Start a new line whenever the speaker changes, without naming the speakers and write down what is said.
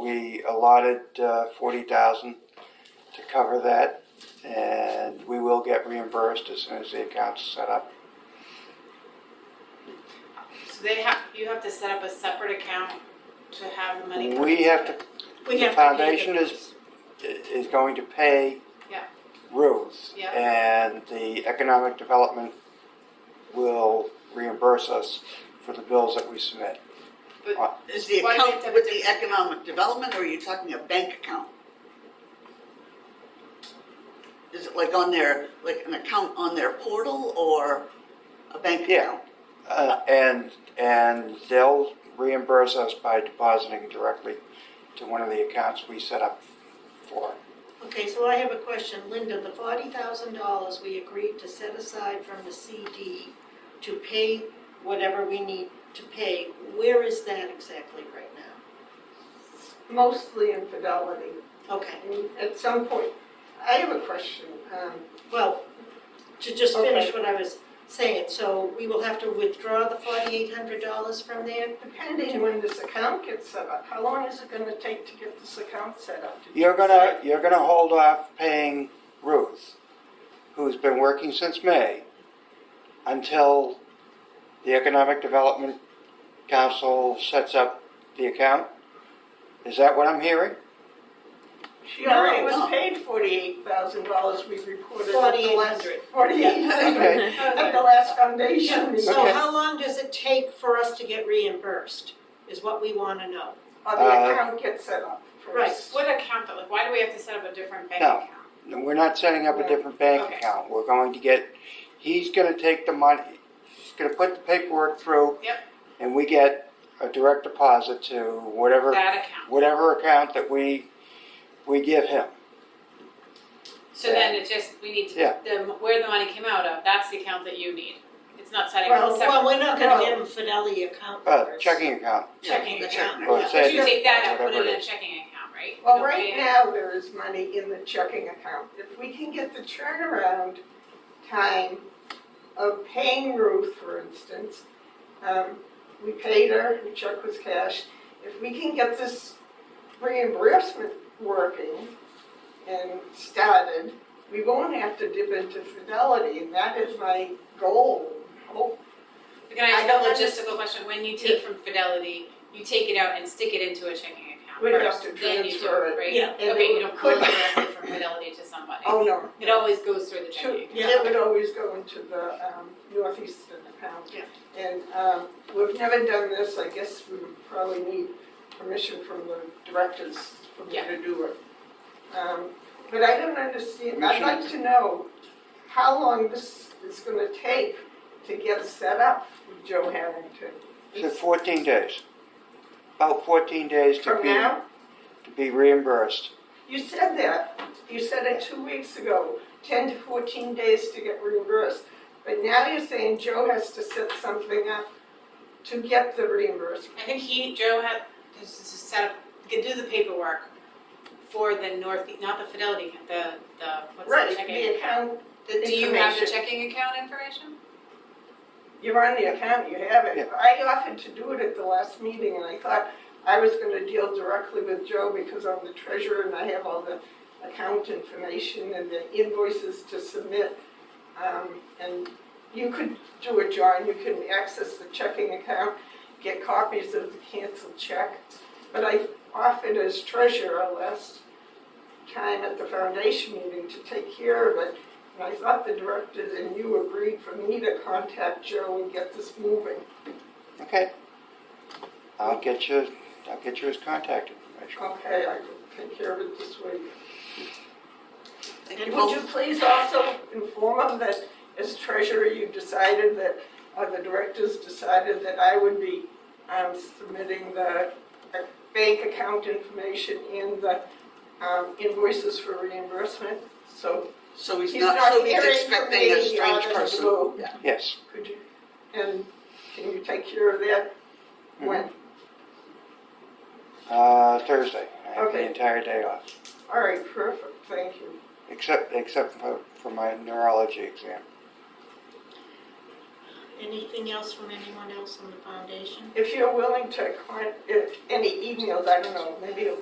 we allotted uh, forty thousand to cover that, and we will get reimbursed as soon as the account's set up.
So they have, you have to set up a separate account to have the money. come
We
into
have to,
it. We
the
have to pay
foundation is-
bills.
is going to pay
Yeah.
Ruth,
Yeah.
and the economic development will reimburse us for the bills that we submit.
Is the
Why do they have to
account
have
with
a
the
different-
economic development, or are you talking a bank account? Is it like on their, like an account on their portal or a bank
Yeah.
account?
Uh, and, and they'll reimburse us by depositing directly to one of the accounts we set up for.
Okay, so I have a question. Linda, the forty thousand dollars we agreed to set aside from the CD to pay whatever we need to pay, where is that exactly right now?
mostly infidelity.
Okay,
And at some point, I have a question. Um,
well, to just finish
Okay.
what I was saying, so we will have to withdraw the forty-eight hundred dollars from there?
Depending when this account gets set up, how long is it gonna take to get this account set up? Did you
You're gonna,
decide?
you're gonna hold off paying Ruth, who's been working since May, until the Economic Development Council sets up the account? Is that what I'm hearing?
She already
No,
was
no.
paid forty-eight thousand dollars, we reported.
Forty-eight hundred.
Forty-eight hundred
Okay,
at the last foundation meeting.
So
Okay.
how long does it take for us to get reimbursed, is what we wanna know.
Uh,
Or the account gets set up first.
What account though? Like, why do we have to set up a different bank
No.
account?
No, we're not setting up a different bank
Okay.
account, we're going to get, he's gonna take the money, he's gonna put the paperwork through.
Yep.
And we get a direct deposit to whatever,
That account.
whatever account that we, we give him.
So then it just, we need to,
Yeah.
the, where the money came out of, that's the account that you need. It's not setting up a
Well, well,
separate
we're not gonna
No.
give them Fidelity account
Uh,
numbers.
checking account.
checking
The
account.
Well, it
But
said-
you take that and put
Whatever
it in
it
a
is.
checking account, right?
Well,
No
right
way.
now, there is money in the checking account. If we can get the turnaround time of paying Ruth, for instance, um, we paid her, the check was cashed. If we can get this reimbursement working and started, we won't have to dip into Fidelity, and that is my goal, Oh, hope.
But Can I ask
I don't
a logistical question? When you take from Fidelity, you take it out and stick it into a checking account
We don't have
first,
to
then you do
transfer
it,
it.
right?
Yeah.
And
Okay,
it
you don't go
could-
directly from Fidelity to somebody.
Oh, no.
It always goes through the checking
Should,
account.
it would always go into the um, northeastern account.
Yeah.
And um, we've never done this, I guess we would probably need permission from the directors for me
Yeah.
to do it. Um, But I don't understand, I'd
Permission.
like to know how long this is gonna take to get set up with Joe Harrington.
So fourteen days. About fourteen days to
From
be,
now,
to be reimbursed.
you said that, you said it two weeks ago, ten to fourteen days to get reimbursed. But now you're saying Joe has to set something up to get the reimbursement.
I think he, Joe had, has to set up, could do the paperwork for the North, not the Fidelity, account, the, the, what's the
Right,
checking
the
account?
account,
Do you have the
information.
checking account information?
you're on the account, you have it.
Yeah.
I offered to do it at the last meeting, and I thought I was gonna deal directly with Joe because I'm the treasurer and I have all the account information and the invoices to submit. Um, and you could do it, John, you can access the checking account, get copies of the canceled check. But I offered as treasurer last time at the foundation meeting to take care of it. And I thought the directors and you agreed for me to contact Joe and get this moving.
Okay. I'll get you, I'll get you his contact information.
Okay, I can take care of it this week.
Thank
And
you
would you
both.
please also inform them that as treasurer, you decided that, or the directors decided that I would be um, submitting the uh, bank account information and the um, invoices for reimbursement, so
So he's
he's
not,
not
so he's
hearing
expecting
from
a
me
strange
uh,
out of the
person.
blue.
Yeah.
Yes.
could you, and can you take care of that when?
Uh, Thursday. I have the
Okay.
entire day off,
All right, perfect, thank you.
except, except for, for my neurology exam.
Anything else from anyone else on the foundation?
If you're willing to, con- if any emails, I don't know, maybe a